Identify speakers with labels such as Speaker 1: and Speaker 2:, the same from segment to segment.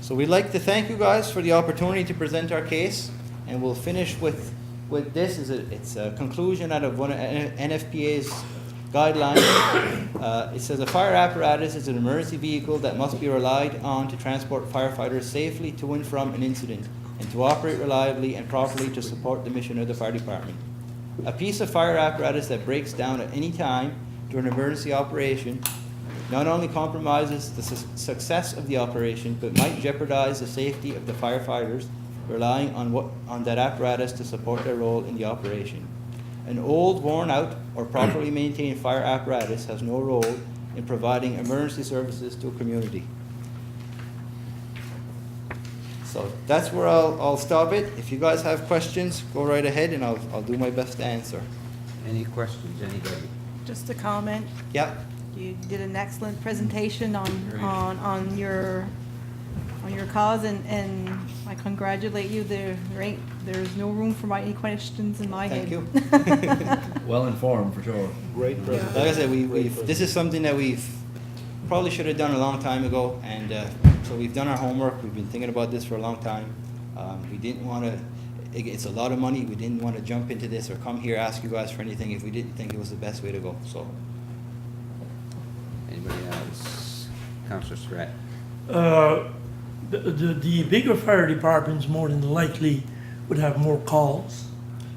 Speaker 1: So we'd like to thank you guys for the opportunity to present our case, and we'll finish with, with this, is a, it's a conclusion out of one of N- NFPA's guidelines. Uh, It says, "A fire apparatus is an emergency vehicle that must be relied on to transport firefighters safely to and from an incident, and to operate reliably and properly to support the mission of the fire department. A piece of fire apparatus that breaks down at any time during emergency operation not only compromises the su- success of the operation, but might jeopardize the safety of the firefighters relying on what, on that apparatus to support their role in the operation. An old, worn-out, or properly maintained fire apparatus has no role in providing emergency services to a community. So that's where I'll, I'll stop it. If you guys have questions, go right ahead, and I'll, I'll do my best to answer.
Speaker 2: Any questions, anybody?
Speaker 3: Just a comment,
Speaker 1: Yep,
Speaker 3: you did an excellent presentation on,
Speaker 2: Great.
Speaker 3: on, on your, on your cause, and, and I congratulate you, there, there ain't, there's no room for my, any questions in my head.
Speaker 1: Thank you.
Speaker 4: Well informed, for sure.
Speaker 5: Great
Speaker 3: presentation.
Speaker 1: Like I said, we, we've, this is something that we've probably should have done a long time ago, and, uh, so we've done our homework, we've been thinking about this for a long time. Um, we didn't wanna, it, it's a lot of money, we didn't wanna jump into this or come here, ask you guys for anything if we didn't think it was the best way to go, so.
Speaker 2: Anybody else? Counselor Surratt?
Speaker 6: Uh, the, the, the bigger fire departments more than likely would have more calls.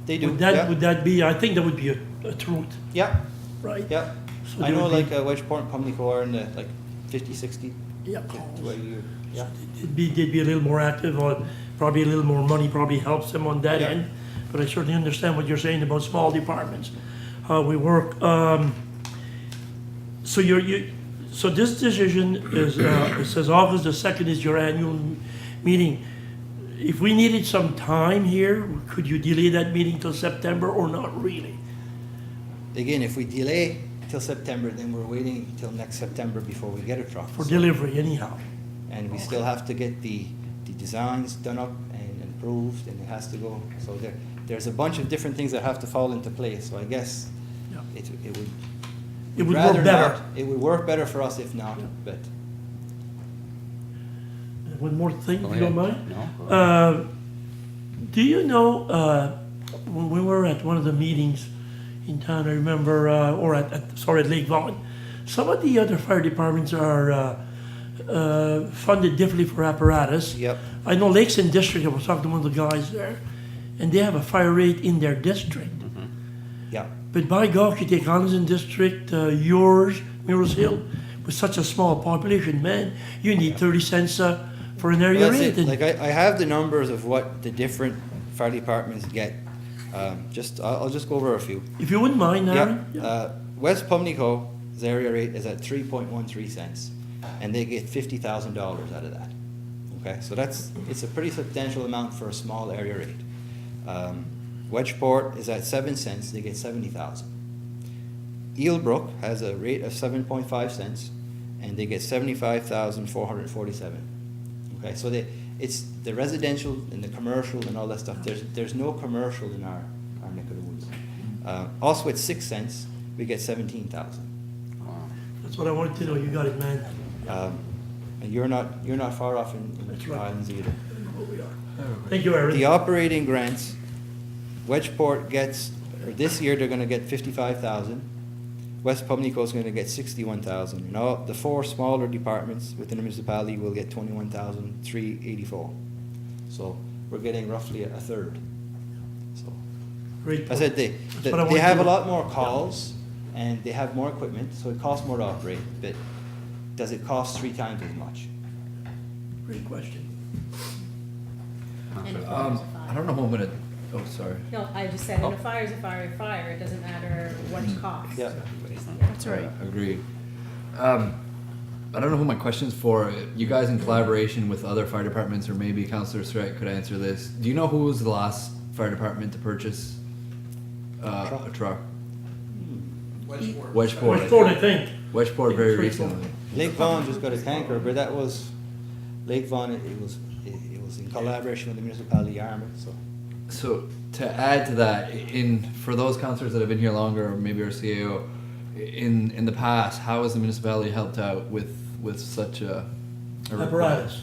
Speaker 1: They do,
Speaker 6: Would that,
Speaker 1: yeah,
Speaker 6: would that be, I think that would be a, a truth,
Speaker 1: yeah,
Speaker 6: right?
Speaker 1: yeah.
Speaker 6: So
Speaker 1: I
Speaker 6: there
Speaker 1: know
Speaker 6: would
Speaker 1: like
Speaker 6: be-
Speaker 1: uh, Wedgeport and Pumlico are in the, like, fifty, sixty,
Speaker 6: Yeah,
Speaker 1: to a
Speaker 6: calls.
Speaker 1: year, yeah.
Speaker 6: It'd be, they'd be a little more active on, probably a little more money probably helps them on that
Speaker 1: Yeah.
Speaker 6: end. But I certainly understand what you're saying about small departments, how we work. Um, so you're, you, so this decision is, uh, it says August the second is your annual m- meeting. If we needed some time here, could you delay that meeting till September or not really?
Speaker 1: Again, if we delay till September, then we're waiting till next September before we get a truck.
Speaker 6: For
Speaker 1: so-
Speaker 6: delivery anyhow.
Speaker 1: And we still have to get the, the designs done up and improved, and it has to go, so there, there's a bunch of different things that have to fall into place, so I guess
Speaker 6: Yeah.
Speaker 1: it, it would.
Speaker 6: It would
Speaker 1: rather
Speaker 6: work better.
Speaker 1: not. It would work better for us if not, but,
Speaker 6: One more thing,
Speaker 2: Go
Speaker 6: if you don't
Speaker 2: ahead.
Speaker 6: mind?
Speaker 2: No? go ahead.
Speaker 6: Uh, Do you know, uh, when we were at one of the meetings in town, I remember, uh, or at, at- sorry, at Lake Vaughan, some of the other fire departments are uh, uh, funded differently for apparatus.
Speaker 1: yep,
Speaker 6: I know Lakeson District, I was talking to one of the guys there, and they have a fire rate in their district.
Speaker 1: yeah,
Speaker 6: But by God, you take Hansen District, uh, yours, Mirrors Hill, with such a small population, man, you need 30 cents uh, for an area
Speaker 1: Well, that's
Speaker 6: rate.
Speaker 1: it.
Speaker 6: and-
Speaker 1: Like, I, I have the numbers of what the different fire departments get, um, just, I'll, I'll just go over a few.
Speaker 6: If you wouldn't mind,
Speaker 1: uh, Yeah,
Speaker 6: Aaron?
Speaker 1: uh, West Pumlico's area rate is at three point one three cents, and they get fifty thousand dollars out of that. Okay, so that's, it's a pretty substantial amount for a small area rate. Um, Wedgeport is at seven cents, they get seventy thousand. Eelbrook has a rate of seven point five cents, and they get seventy-five thousand four hundred forty-seven. Okay, so they, it's the residential and the commercial and all that stuff, there's, there's no commercial in our, our neck of the woods. Uh, also at six cents, we get seventeen thousand.
Speaker 2: Wow.
Speaker 6: That's what I wanted to know, you got it, man.
Speaker 1: Um, and you're not, you're not far off in, in the
Speaker 6: That's
Speaker 1: Two
Speaker 6: right.
Speaker 1: Islands either.
Speaker 6: Thank you,
Speaker 1: The
Speaker 6: Aaron.
Speaker 1: operating grants, Wedgeport gets, or this year, they're gonna get fifty-five thousand. West Pumlico's gonna get sixty-one thousand, and all, the four smaller departments within the municipality will get twenty-one thousand, three eighty-four. So, we're getting roughly a a third. So,
Speaker 6: Great.
Speaker 1: I said they,
Speaker 6: what I
Speaker 1: they
Speaker 6: wanted
Speaker 1: have a
Speaker 6: to-
Speaker 1: lot more calls, and they have more equipment, so it costs more to operate, but does it cost three times as much?
Speaker 6: Great question.
Speaker 2: Counselor Fox?
Speaker 4: Um, I don't Oh. know who I'm gonna, oh, sorry.
Speaker 7: No, I just said, and a fire is a fire, is a fire, it doesn't matter what
Speaker 4: Hmm.
Speaker 7: it costs.
Speaker 1: Yeah.
Speaker 3: That's right.
Speaker 4: Uh, Agreed. Um, I don't know who my question's for. You guys in collaboration with other fire departments, or maybe Counselor Surratt could answer this. Do you know who was the last fire department to purchase uh, a truck? Wedgeport. Wedgeport. I
Speaker 6: Hmm. Westport, I
Speaker 4: think.
Speaker 6: think.
Speaker 4: Wedgeport very
Speaker 6: Three, four.
Speaker 4: recently.
Speaker 1: Lake Vaughan just got a tanker, but that was, Lake Vaughan, it it was, it it was in collaboration with the municipality of Yarmouth, so.
Speaker 4: So to add to that, in for those counselors that have been here longer, or maybe our CAO, in in the past, how has the municipality helped out with with such a, a request?
Speaker 6: Apparatus.